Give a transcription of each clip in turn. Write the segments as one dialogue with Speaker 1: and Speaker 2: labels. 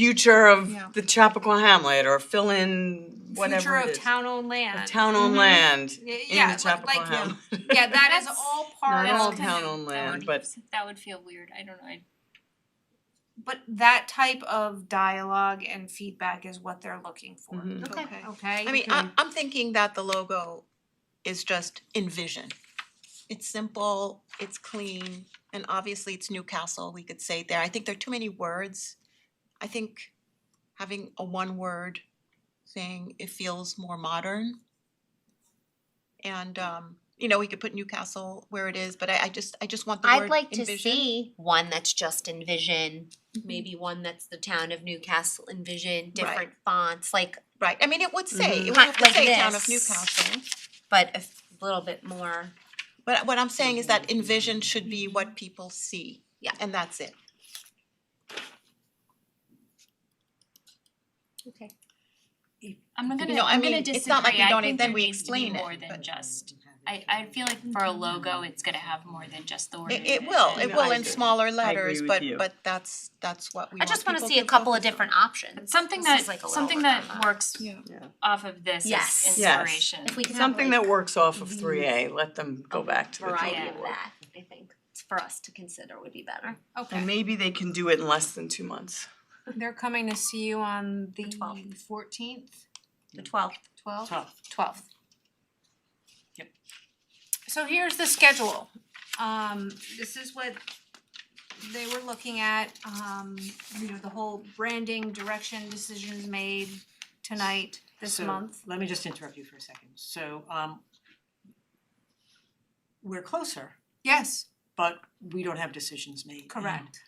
Speaker 1: future of
Speaker 2: Yeah.
Speaker 1: the Chappaqua Hamlet or fill in
Speaker 3: future
Speaker 1: whatever it
Speaker 3: of
Speaker 1: is.
Speaker 3: town-owned land.
Speaker 1: Town-owned land
Speaker 3: Yeah,
Speaker 1: in the
Speaker 3: yeah,
Speaker 1: Chappaqua
Speaker 3: like-
Speaker 1: Hamlet.
Speaker 3: Yeah, that is all part
Speaker 1: Not all
Speaker 3: of,
Speaker 1: town-owned land, but
Speaker 4: that would feel weird. I don't know. I-
Speaker 3: but that type of dialogue and feedback is what they're looking for.
Speaker 1: Mhm.
Speaker 2: Okay.
Speaker 5: Oh,
Speaker 3: Okay.
Speaker 2: I mean, I'm, I'm thinking that the logo is just envision. It's simple, it's clean, and obviously it's Newcastle, we could say there. I think there are too many words. I think having a one word thing, it feels more modern. And um, you know, we could put Newcastle where it is, but I, I just, I just want the
Speaker 5: I'd
Speaker 2: word
Speaker 5: like to
Speaker 2: envision.
Speaker 5: see one that's just envision, maybe one that's the town of Newcastle envision, different fonts, like
Speaker 2: Right, I mean, it would say, it would
Speaker 5: Kind
Speaker 2: have to
Speaker 5: like
Speaker 2: say town of
Speaker 5: this.
Speaker 2: Newcastle.
Speaker 5: but a f- little bit more.
Speaker 2: But what I'm saying is
Speaker 1: Mm-hmm.
Speaker 2: that envision should be what people see.
Speaker 5: Yeah.
Speaker 2: And that's it.
Speaker 5: Okay.
Speaker 4: I'm not gonna.
Speaker 2: know, I
Speaker 4: I'm
Speaker 2: mean,
Speaker 4: gonna
Speaker 2: it's
Speaker 4: disagree.
Speaker 2: not like we
Speaker 4: I
Speaker 2: donate,
Speaker 4: think
Speaker 2: then
Speaker 4: there
Speaker 2: we
Speaker 4: needs to be
Speaker 2: explain it,
Speaker 4: More than
Speaker 2: but-
Speaker 4: just. I I feel like for a
Speaker 5: Mm-hmm.
Speaker 4: logo, it's gonna have more than just the word.
Speaker 2: It it will,
Speaker 4: envision.
Speaker 2: it
Speaker 1: No,
Speaker 2: will
Speaker 1: I
Speaker 2: in
Speaker 1: agree.
Speaker 2: smaller
Speaker 1: agree
Speaker 2: letters,
Speaker 1: with
Speaker 2: but
Speaker 1: you.
Speaker 2: but that's that's what we
Speaker 5: I
Speaker 2: want
Speaker 5: just wanna
Speaker 2: people
Speaker 5: see a
Speaker 2: to
Speaker 5: couple of
Speaker 2: focus
Speaker 5: different
Speaker 4: But
Speaker 5: options.
Speaker 4: Something
Speaker 5: This
Speaker 4: that
Speaker 5: is like a little work
Speaker 4: something that
Speaker 5: on
Speaker 4: works
Speaker 2: Yeah.
Speaker 4: off of this is
Speaker 1: Yes.
Speaker 5: Yes.
Speaker 4: inspiration.
Speaker 5: If we can have
Speaker 1: something
Speaker 5: like
Speaker 1: that works off of three A, let them go back to the drawing
Speaker 5: variety
Speaker 1: board.
Speaker 5: of that, I think, it's for us to consider would be better.
Speaker 3: okay.
Speaker 1: And maybe they can do it in less than two months.
Speaker 3: They're coming to see you on the
Speaker 5: 12th.
Speaker 3: fourteenth,
Speaker 5: The twelfth.
Speaker 3: twelfth?
Speaker 6: Twelfth.
Speaker 3: Twelfth.
Speaker 6: Yep.
Speaker 3: So here's the schedule. Um, this is what they were looking at, um, you know, the whole branding, direction, decisions made tonight, this
Speaker 6: So,
Speaker 3: month.
Speaker 6: Let me just interrupt you for a second. So um we're closer,
Speaker 3: Yes,
Speaker 6: but we don't have decisions made. And
Speaker 3: correct.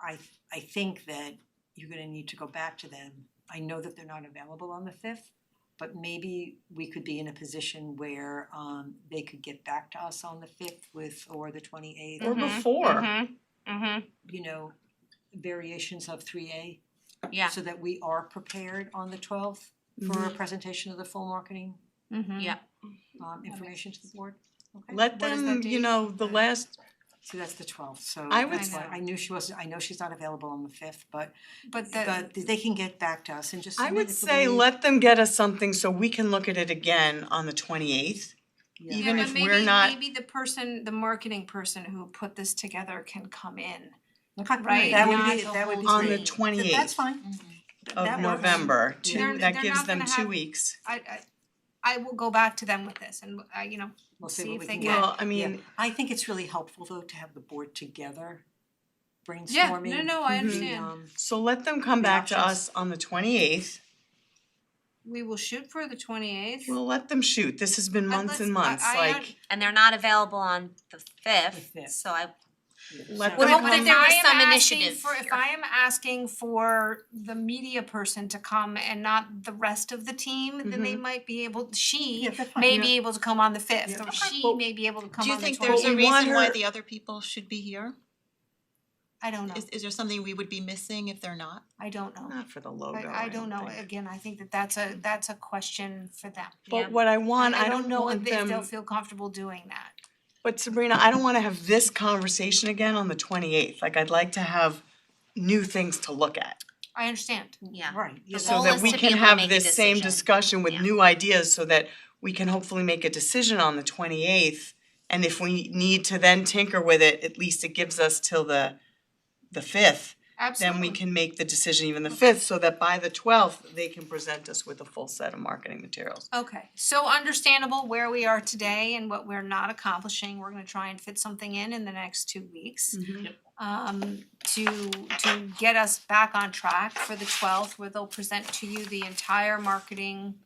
Speaker 6: I I think that you're gonna need to go back to them. I know that they're not available on the fifth, but maybe we could be in a position where um they could get back to us on the fifth with or the twenty eighth,
Speaker 1: Or before,
Speaker 3: Mm-hmm.
Speaker 6: you know, variations of three A.
Speaker 5: Yeah,
Speaker 6: so that we are prepared on the twelfth for a presentation of the full marketing
Speaker 3: Mm-hmm.
Speaker 5: yeah.
Speaker 6: um information to the board. Okay,
Speaker 1: let
Speaker 3: What is that
Speaker 1: them,
Speaker 3: date?
Speaker 1: you know, the last,
Speaker 6: so that's the twelfth, so
Speaker 1: I would
Speaker 6: that's why
Speaker 3: say-
Speaker 6: I knew she wasn't, I know she's not available on the fifth, but
Speaker 3: But the,
Speaker 6: but they can get back to us and just
Speaker 1: I
Speaker 6: submit
Speaker 1: would
Speaker 6: it the
Speaker 1: say
Speaker 6: way-
Speaker 1: let them get us something so we can look at it again on the twenty eighth.
Speaker 6: Yeah.
Speaker 1: even
Speaker 3: yeah,
Speaker 1: if
Speaker 3: but
Speaker 1: we're
Speaker 3: maybe,
Speaker 1: not-
Speaker 3: maybe the person, the marketing person who put this together can come in.
Speaker 6: Okay,
Speaker 3: right,
Speaker 6: That would
Speaker 3: not
Speaker 6: be,
Speaker 3: the
Speaker 6: that would be
Speaker 5: whole
Speaker 1: On
Speaker 6: great.
Speaker 1: the
Speaker 5: Great.
Speaker 1: twenty
Speaker 6: Th- That's
Speaker 1: eighth
Speaker 6: fine. Th-
Speaker 1: of
Speaker 6: that works.
Speaker 1: November, two,
Speaker 6: They're-
Speaker 1: that
Speaker 3: they're
Speaker 1: gives
Speaker 3: not
Speaker 1: them
Speaker 3: gonna
Speaker 1: two
Speaker 3: have-
Speaker 1: weeks.
Speaker 3: I I I will go back to them with this and uh you know,
Speaker 6: We'll
Speaker 3: See
Speaker 6: see
Speaker 3: if
Speaker 6: what we
Speaker 3: they
Speaker 6: can
Speaker 3: get-
Speaker 6: get.
Speaker 1: Well, I mean,
Speaker 6: I think it's really helpful though to have the board together brainstorming.
Speaker 3: yeah, no, no,
Speaker 1: Mhm.
Speaker 3: I
Speaker 6: the,
Speaker 3: understand.
Speaker 6: um,
Speaker 1: so let them come
Speaker 6: The
Speaker 1: back to
Speaker 6: options.
Speaker 1: us on the twenty eighth.
Speaker 3: We will shoot for the twenty eighth.
Speaker 1: Well, let them shoot, this has been
Speaker 3: Uh,
Speaker 1: months
Speaker 3: let's-
Speaker 1: and
Speaker 3: I-
Speaker 1: months,
Speaker 3: I un-
Speaker 1: like,
Speaker 5: And they're not available on the fifth,
Speaker 6: The 5th.
Speaker 5: so I
Speaker 1: let
Speaker 5: Would
Speaker 1: them
Speaker 5: hope
Speaker 1: come.
Speaker 5: that there was some initiative
Speaker 3: for, if
Speaker 5: here.
Speaker 3: I am asking for the media person to come and not the rest of the team, then they might be able, she
Speaker 6: Mm-hmm. Yeah, that's fine.
Speaker 3: may be able to come on the fifth,
Speaker 6: Yeah.
Speaker 3: or
Speaker 6: Okay.
Speaker 3: she
Speaker 1: Well,
Speaker 3: may be able to
Speaker 2: Do
Speaker 3: come
Speaker 2: you
Speaker 3: on the
Speaker 2: think
Speaker 3: twelfth.
Speaker 2: there's a
Speaker 1: Well, we want
Speaker 2: reason why
Speaker 1: her-
Speaker 2: the other people should be here?
Speaker 3: I don't know,
Speaker 2: Is is there something we would be missing if they're not?
Speaker 3: I don't know.
Speaker 1: Not for the logo,
Speaker 3: Oh, I I don't know,
Speaker 1: think.
Speaker 3: again, I think that that's a, that's a question for them.
Speaker 5: Yeah.
Speaker 1: But what I want, I don't know
Speaker 3: if
Speaker 1: want
Speaker 3: they- if they'll
Speaker 1: them,
Speaker 3: feel comfortable doing that.
Speaker 1: but Sabrina, I don't wanna have this conversation again on the twenty eighth, like I'd like to have new things to look at.
Speaker 3: I understand.
Speaker 5: yeah.
Speaker 6: Right, yeah,
Speaker 5: The
Speaker 6: that-
Speaker 5: goal
Speaker 1: So that
Speaker 5: is
Speaker 1: we
Speaker 5: to be
Speaker 1: can
Speaker 5: able to
Speaker 1: have
Speaker 5: make a
Speaker 1: this same
Speaker 5: decision.
Speaker 1: discussion with
Speaker 5: Yeah.
Speaker 1: new ideas so that we can hopefully make a decision on the twenty eighth. And if we need to then tinker with it, at least it gives us till the the fifth,
Speaker 3: Absolutely.
Speaker 1: then we can make the decision even the fifth, so that by the twelfth, they can present us with a full set of marketing materials.
Speaker 3: Okay, so understandable where we are today and what we're not accomplishing, we're gonna try and fit something in in the next two weeks. Um, to to get us back on track for the twelfth, where they'll present to you the entire marketing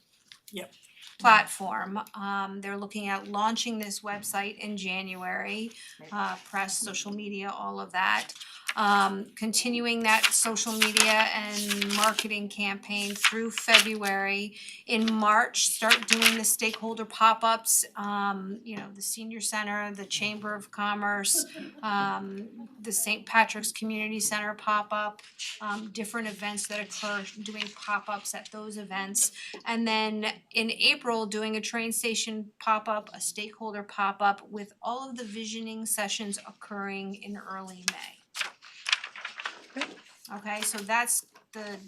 Speaker 6: Yep.
Speaker 3: platform, um, they're looking at launching this website in January, uh, press, social media, all of that. Um, continuing that social media and marketing campaign through February in March, start doing the stakeholder pop-ups, um, you know, the senior center, the Chamber of Commerce, um, the St. Patrick's Community Center pop-up, um, different events that occur, doing pop-ups at those events. And then in April, doing a train station pop-up, a stakeholder pop-up with all of the visioning sessions occurring in early May. Okay, so that's the